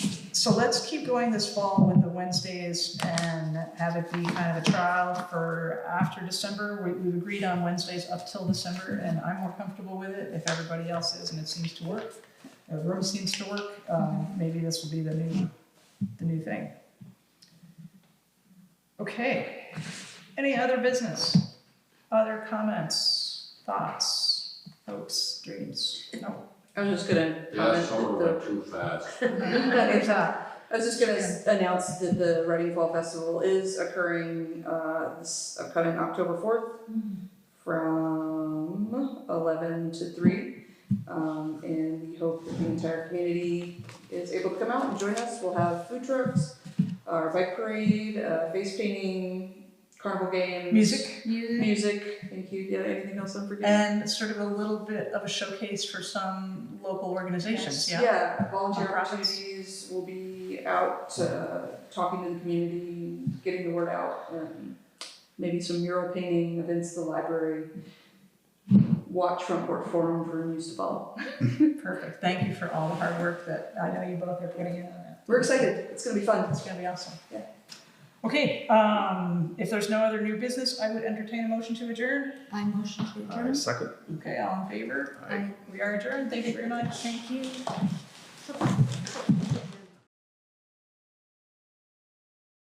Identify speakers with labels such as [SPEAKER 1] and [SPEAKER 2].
[SPEAKER 1] so let's keep going this fall with the Wednesdays and have it be kind of a trial for after December. We, we've agreed on Wednesdays up till December, and I'm more comfortable with it if everybody else is, and it seems to work. The room seems to work, um, maybe this will be the new, the new thing. Okay, any other business? Other comments, thoughts, hopes, dreams? No.
[SPEAKER 2] I was just gonna
[SPEAKER 3] Yeah,
[SPEAKER 2] comment that
[SPEAKER 3] summer
[SPEAKER 2] the.
[SPEAKER 3] went too fast.
[SPEAKER 2] It's not. I was just gonna s- announce that the Reading Fall Festival is occurring uh this upcoming October fourth from eleven to three. Um and we hope that the entire community is able to come out and join us. We'll have food trucks, our bike parade, uh face painting, carnival games.
[SPEAKER 1] Music?
[SPEAKER 2] Music, thank you, yeah, anything else I'm forgetting?
[SPEAKER 1] And it's sort of a little bit of a showcase for some local organizations, yeah.
[SPEAKER 2] volunteer
[SPEAKER 1] Nonprofits.
[SPEAKER 2] opportunities will be out, uh, talking to the community, getting the word out, and maybe some mural painting events at the library. Watch Front Porch Forum for news to follow.
[SPEAKER 1] Perfect, thank you for all the hard work that I know you both are putting in on that.
[SPEAKER 2] We're excited, it's gonna be fun.
[SPEAKER 1] It's gonna be awesome.
[SPEAKER 2] Yeah.
[SPEAKER 1] Okay, um, if there's no other new business, I would entertain a motion to adjourn.
[SPEAKER 4] I motion to
[SPEAKER 5] I
[SPEAKER 4] adjourn.
[SPEAKER 5] second.
[SPEAKER 1] Okay, all in favor?
[SPEAKER 4] Aye.
[SPEAKER 1] We are adjourned, thank you very much.
[SPEAKER 4] Thank you.